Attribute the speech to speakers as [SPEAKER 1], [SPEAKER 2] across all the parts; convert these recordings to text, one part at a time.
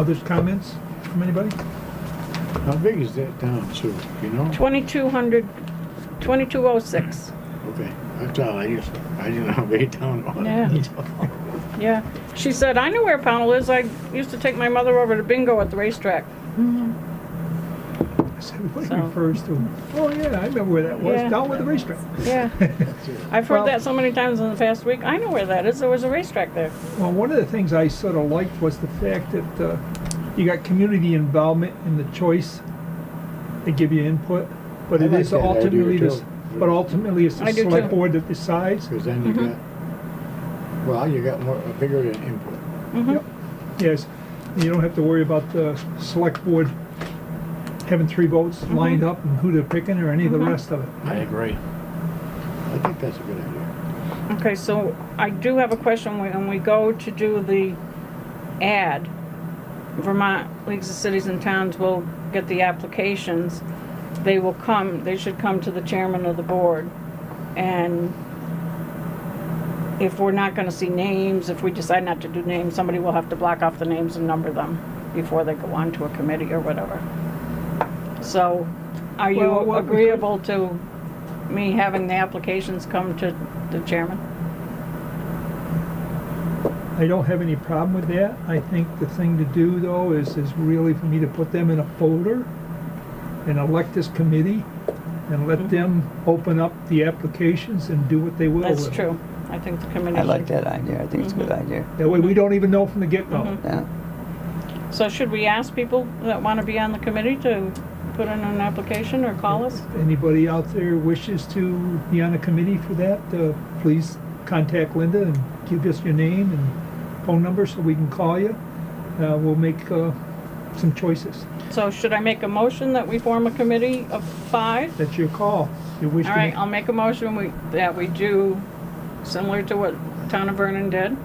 [SPEAKER 1] Other comments from anybody?
[SPEAKER 2] How big is that town, Sue, you know?
[SPEAKER 3] 2200, 2206,
[SPEAKER 2] Okay, that's all, I just, I didn't know how big a town it was.
[SPEAKER 3] Yeah. yeah. She said, I know where Pownell is, I used to take my mother over to bingo at the racetrack.
[SPEAKER 1] I said, Everybody
[SPEAKER 3] So-
[SPEAKER 1] refers to, oh yeah, I remember where that
[SPEAKER 3] Yeah.
[SPEAKER 1] was, down with the racetrack.
[SPEAKER 3] Yeah. I've
[SPEAKER 1] Well-
[SPEAKER 3] heard that so many times in the past week, I know where that is, there was a racetrack there.
[SPEAKER 1] Well, one of the things I sort of liked was the fact that uh, you got community involvement in the choice. They give you input, but
[SPEAKER 2] I
[SPEAKER 1] it
[SPEAKER 2] like
[SPEAKER 1] is
[SPEAKER 2] that idea,
[SPEAKER 1] ultimately, this-
[SPEAKER 2] too.
[SPEAKER 1] but ultimately it's the
[SPEAKER 3] I do,
[SPEAKER 1] select
[SPEAKER 3] too.
[SPEAKER 1] board that decides.
[SPEAKER 2] Because then
[SPEAKER 3] Mm-hmm.
[SPEAKER 2] you got, well, you got more, a bigger input.
[SPEAKER 3] Mm-hmm.
[SPEAKER 1] Yep. Yes, and you don't have to worry about the select board having three votes lined
[SPEAKER 3] Mm-hmm.
[SPEAKER 1] up and who they're picking or any of the rest of it.
[SPEAKER 4] I agree.
[SPEAKER 2] I think that's a good idea.
[SPEAKER 3] Okay, so I do have a question, when we go to do the ad, Vermont Leagues of Cities and Towns will get the applications, they will come, they should come to the chairman of the board, and if we're not gonna see names, if we decide not to do names, somebody will have to block off the names and number them before they go on to a committee or whatever. So, are
[SPEAKER 1] Well,
[SPEAKER 3] you
[SPEAKER 1] what we could-
[SPEAKER 3] agreeable to me having the applications come to the chairman?
[SPEAKER 1] I don't have any problem with that. I think the thing to do though is, is really for me to put them in a folder and elect this committee and let
[SPEAKER 3] Mm-hmm.
[SPEAKER 1] them open up the applications and do what they will.
[SPEAKER 3] That's
[SPEAKER 1] with it.
[SPEAKER 3] true. I think the committee.
[SPEAKER 5] I like that idea. I think it's a good idea.
[SPEAKER 1] That way
[SPEAKER 3] Mm-hmm.
[SPEAKER 1] we don't even know from the get-go.
[SPEAKER 5] Yeah.
[SPEAKER 3] should- So should we ask people that want to be on the committee to put in an application or call us?
[SPEAKER 1] Anybody out there wishes to be on a committee for that, uh, please contact Linda and give us your name and phone number so we can call you. Uh, We'll make uh, some choices.
[SPEAKER 3] So should I make a motion that we form a committee of five?
[SPEAKER 1] That's your call. You wish to
[SPEAKER 3] All
[SPEAKER 1] make
[SPEAKER 3] right, um, I'll make a motion we- that we do similar to what Town of Vernon did.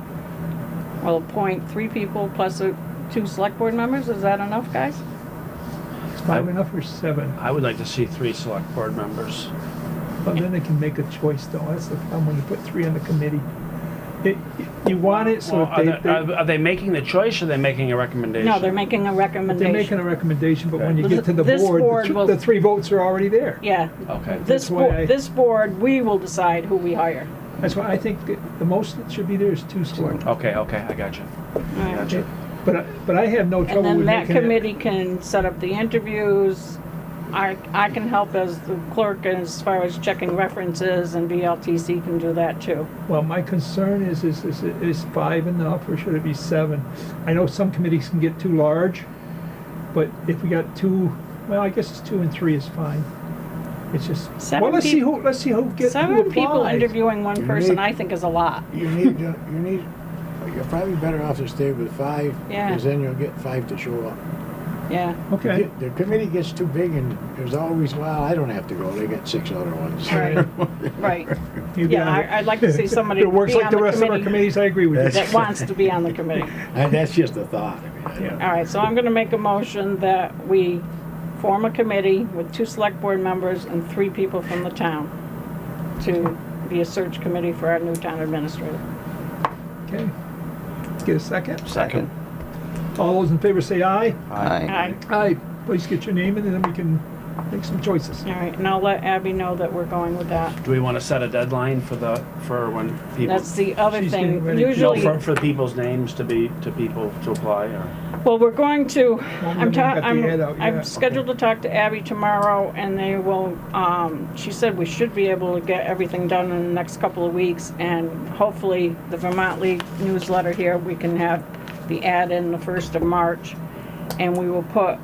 [SPEAKER 3] We'll appoint three people plus uh, two select board members. Is that enough, guys?
[SPEAKER 1] five enough or seven?
[SPEAKER 4] I would like to see three select board members.
[SPEAKER 1] Well, then they can make a choice though. That's the problem when you put three on the committee. It- You want it so
[SPEAKER 4] Well,
[SPEAKER 1] if they,
[SPEAKER 4] are, they,
[SPEAKER 1] they-
[SPEAKER 4] are, are they making the choice or are they making a recommendation?
[SPEAKER 3] No, they're making a
[SPEAKER 1] they're making
[SPEAKER 3] recommendation.
[SPEAKER 1] a recommendation, but when you get to the
[SPEAKER 3] This
[SPEAKER 1] board,
[SPEAKER 3] board
[SPEAKER 1] the thr-
[SPEAKER 3] will-
[SPEAKER 1] the three votes are already there.
[SPEAKER 3] Yeah.
[SPEAKER 4] Okay.
[SPEAKER 3] This,
[SPEAKER 1] That's why I-
[SPEAKER 3] bo- this board, we will decide who we hire.
[SPEAKER 1] That's why I think that the most that should be there is two select.
[SPEAKER 4] Okay, okay, I got you. I got you.
[SPEAKER 1] But, I- but I have no trouble
[SPEAKER 3] And
[SPEAKER 1] with
[SPEAKER 3] then that
[SPEAKER 1] making it-
[SPEAKER 3] committee can set up the interviews. I, I can help as the clerk as far as checking references and VLTC can do that too.
[SPEAKER 1] Well, my concern is, is, is, is five enough or should it be seven? I know some committees can get too large, but if we got two, well, I guess it's two and three is fine. It's just, well,
[SPEAKER 3] Seven
[SPEAKER 1] let's see
[SPEAKER 3] peop-
[SPEAKER 1] who, let's see who gets, who
[SPEAKER 3] Seven people
[SPEAKER 1] applies.
[SPEAKER 3] interviewing one
[SPEAKER 2] You
[SPEAKER 3] person,
[SPEAKER 2] need-
[SPEAKER 3] I think is a lot.
[SPEAKER 2] You need, to- you need, you're probably better off to stay with five.
[SPEAKER 3] Yeah.
[SPEAKER 2] Because then you'll get five to show up.
[SPEAKER 3] Yeah,
[SPEAKER 1] Okay.
[SPEAKER 2] The committee gets too big and there's always, well, I don't have to go, they got six other ones.
[SPEAKER 3] Right. right.
[SPEAKER 1] You
[SPEAKER 3] Yeah,
[SPEAKER 1] got it.
[SPEAKER 3] I- I'd like to see somebody
[SPEAKER 1] It works
[SPEAKER 3] be
[SPEAKER 1] like
[SPEAKER 3] on
[SPEAKER 1] the
[SPEAKER 3] the
[SPEAKER 1] rest of our
[SPEAKER 3] committee.
[SPEAKER 1] committees, I agree with you.
[SPEAKER 3] That wants to be on the committee.
[SPEAKER 2] And that's just a thought, I mean, I don't.
[SPEAKER 3] All right, so I'm gonna make a motion that we form a committee with two select board members and three people from the town to be a search committee for our new town administrator.
[SPEAKER 1] Okay. Get a second.
[SPEAKER 5] Second.
[SPEAKER 1] All those in favor say aye.
[SPEAKER 5] Aye.
[SPEAKER 3] Aye.
[SPEAKER 1] Aye. Please get your name in and then we can make some choices.
[SPEAKER 3] All right, and I'll let Abby know that we're going with that.
[SPEAKER 4] Do we want to set a deadline for the, for when people?
[SPEAKER 3] That's the other
[SPEAKER 1] She's getting
[SPEAKER 3] thing.
[SPEAKER 1] ready. No,
[SPEAKER 4] No,
[SPEAKER 3] Usually,
[SPEAKER 4] for, for people's names to be, to people to apply or?
[SPEAKER 3] well, we're going to,
[SPEAKER 1] haven't
[SPEAKER 3] I'm, ta-
[SPEAKER 1] got the ad out
[SPEAKER 3] I'm,
[SPEAKER 1] yet.
[SPEAKER 3] I'm scheduled to talk to Abby tomorrow and they will, um, she said we should be able to get everything done in the next couple of weeks and hopefully the Vermont League newsletter here, we can have the ad in the first of March and we will put,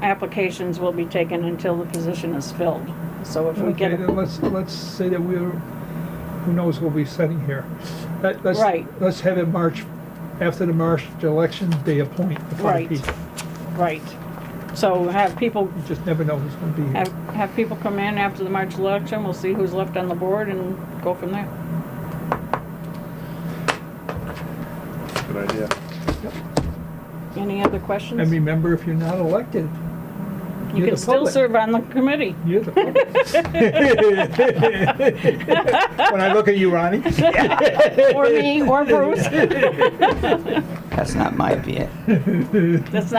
[SPEAKER 3] applications will be taken until the position is filled. So if we get,
[SPEAKER 1] Okay, then let's, let's say that we're, who knows what we're setting here. Let- let's-
[SPEAKER 3] Right.
[SPEAKER 1] Let's have it March, after the March election, they appoint the five
[SPEAKER 3] Right.
[SPEAKER 1] people.
[SPEAKER 3] right, so have people
[SPEAKER 1] You just never know who's gonna be here.
[SPEAKER 3] Have, have people come in after the March election, we'll see who's left on the board and go from there.
[SPEAKER 4] Good idea.
[SPEAKER 3] Any other questions?
[SPEAKER 1] And remember, if you're not elected,
[SPEAKER 3] You
[SPEAKER 1] you're
[SPEAKER 3] can
[SPEAKER 1] the
[SPEAKER 3] still
[SPEAKER 1] public.
[SPEAKER 3] serve on the committee.
[SPEAKER 1] You're the When I look at you, Ronnie.
[SPEAKER 3] Or me, or Bruce.
[SPEAKER 5] That's not my bit.
[SPEAKER 1] That's